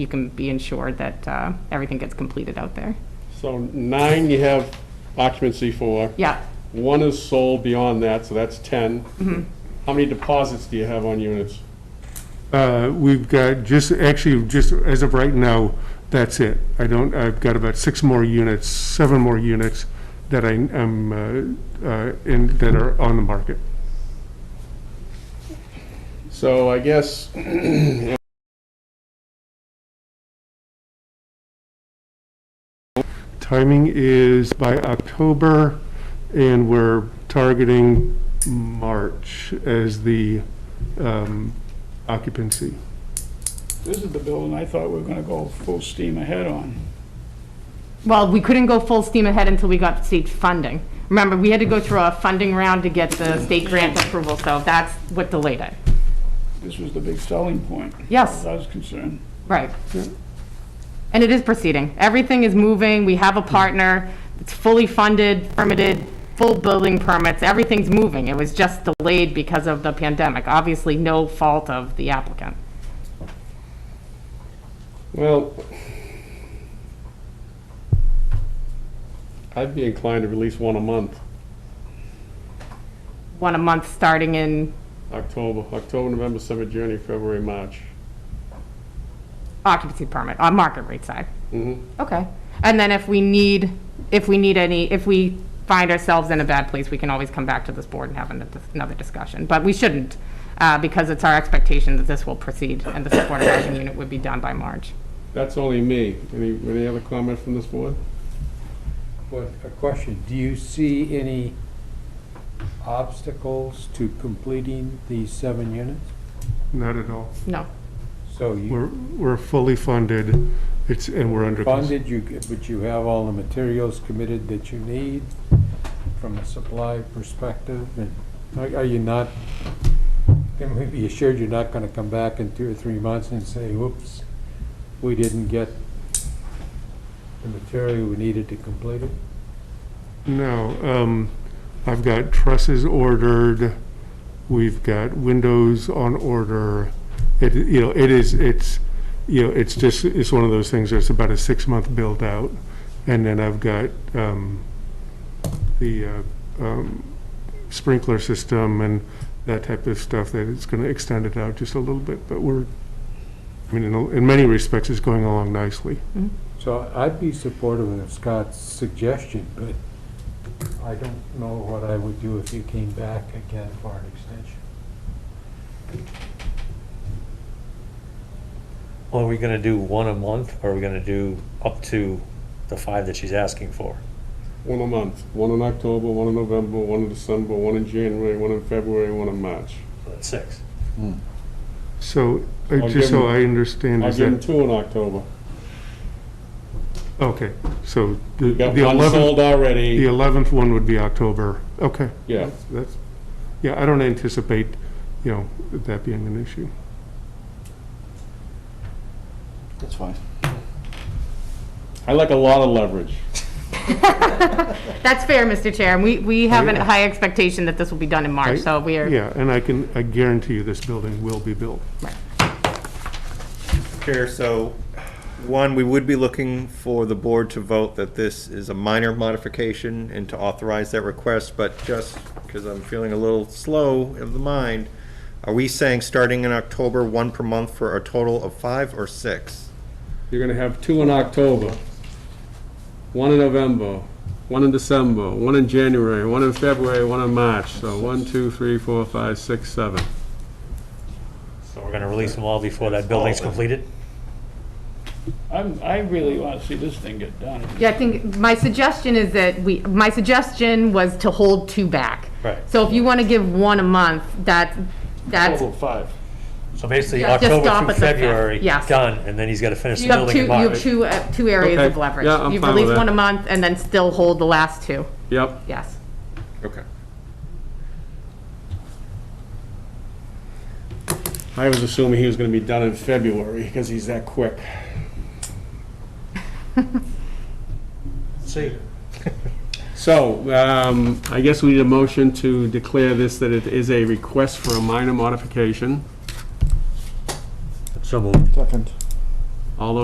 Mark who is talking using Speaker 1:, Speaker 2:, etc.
Speaker 1: you can be ensured that uh, everything gets completed out there.
Speaker 2: So nine you have occupancy for.
Speaker 1: Yeah,
Speaker 2: One is sold beyond that, so that's 10. How many deposits do you have on units?
Speaker 3: Uh, We've got just, actually, just as of right now, that's it. I don't, I've got about six more units, seven more units that I am, uh, uh, in, that are on the market.
Speaker 2: So I guess,
Speaker 3: Timing is by October, and we're targeting March as the um, occupancy.
Speaker 4: This is the building I thought we were gonna go full steam ahead on.
Speaker 1: well, we couldn't go full steam ahead until we got state funding. Remember, we had to go through a funding round to get the state grant approval, so that's what delayed it.
Speaker 4: This was the big selling point.
Speaker 1: Yes.
Speaker 4: As I was concerned.
Speaker 1: Right. And it is proceeding. Everything is moving. We have a partner. It's fully funded, permitted, full building permits. Everything's moving. It was just delayed because of the pandemic. Obviously, no fault of the applicant.
Speaker 2: well, I'd be inclined to release one a month,
Speaker 1: One a month starting in
Speaker 2: October, October, November, December, January, February, March.
Speaker 1: occupancy permit on market rate side.
Speaker 2: Mhm.
Speaker 1: Okay. And then if we need, if we need any, if we find ourselves in a bad place, we can always come back to this board and have an- another discussion. But we shouldn't, uh, because it's our expectation that this will proceed and the supportive housing unit would be done by March.
Speaker 2: That's only me. Any, any other comment from this board?
Speaker 5: What, a question, do you see any obstacles to completing these seven units?
Speaker 3: Not at all.
Speaker 1: No.
Speaker 5: So you
Speaker 3: We're, we're fully funded, it's, and we're under.
Speaker 5: funded, you, but you have all the materials committed that you need from a supply perspective, and are are you not, can we be assured you're not gonna come back in two or three months and say, whoops, we didn't get the material we needed to complete it?
Speaker 3: No, um, I've got trusses ordered, we've got windows on order. It, you know, it is, it's, you know, it's just, it's one of those things that's about a six-month build-out. And then I've got, um, the, uh, um, sprinkler system and that type of stuff that is gonna extend it out just a little bit, but we're, I mean, in, a- in many respects, it's going along nicely.
Speaker 5: So I'd be supportive of Scott's suggestion, but I don't know what I would do if you came back again for an extension.
Speaker 6: Well, Are we gonna do one a month, or are we gonna do up to the five that she's asking for?
Speaker 2: One a month, one in October, one in November, one in December, one in January, one in February, one in March.
Speaker 6: So that's six.
Speaker 3: So, uh,
Speaker 2: I'll give
Speaker 3: just so
Speaker 2: him-
Speaker 3: I understand,
Speaker 2: I'll
Speaker 3: is
Speaker 2: give them
Speaker 3: that,
Speaker 2: two in October.
Speaker 3: okay, so the
Speaker 2: We've got
Speaker 3: the
Speaker 2: one
Speaker 3: 11th
Speaker 2: sold
Speaker 3: The
Speaker 2: already,
Speaker 3: 11th one would be October. Okay,
Speaker 2: yeah.
Speaker 3: that's, yeah, I don't anticipate, you know, that being an issue.
Speaker 7: That's fine.
Speaker 2: I like a lot of leverage.
Speaker 1: That's fair, Mr. Chair. And we, we have a
Speaker 3: yeah.
Speaker 1: high expectation that this will be done in March,
Speaker 3: Right.
Speaker 1: so we are,
Speaker 3: Yeah, and I can, I guarantee you this building will be built.
Speaker 7: Chair, so, one, we would be looking for the board to vote that this is a minor modification and to authorize that request, but just because I'm feeling a little slow of the mind, are we saying starting in October, one per month for a total of five or six?
Speaker 2: You're gonna have two in October, one in November, one in December, one in January, one in February, one in March. So one, two, three, four, five, six, seven.
Speaker 6: So we're gonna release them all before that building's completed?
Speaker 4: I'm, I really want to see this thing get done.
Speaker 1: yeah, I think, my suggestion is that we, my suggestion was to hold two back.
Speaker 6: Right.
Speaker 1: So if you want to give one a month, that, that's,
Speaker 4: Total five.
Speaker 6: So basically,
Speaker 1: Yeah, just stop
Speaker 6: October
Speaker 1: at
Speaker 6: through
Speaker 1: the fifth,
Speaker 6: February,
Speaker 1: yes.
Speaker 6: done, and then he's gotta finish the
Speaker 1: you have
Speaker 6: building
Speaker 1: two,
Speaker 6: in
Speaker 1: you have
Speaker 6: March.
Speaker 1: two, uh, two areas
Speaker 2: Okay.
Speaker 1: of leverage.
Speaker 2: Yeah, I'm
Speaker 1: You've
Speaker 2: fine with
Speaker 1: released
Speaker 2: that.
Speaker 1: one a month and then still hold the last two,
Speaker 2: Yep,
Speaker 1: yes.
Speaker 7: Okay.
Speaker 2: I was assuming he was gonna be done in February because he's that quick.
Speaker 6: See,
Speaker 2: So, um, I guess we need a motion to declare this, that it is a request for a minor modification.
Speaker 6: so moved.
Speaker 7: Second.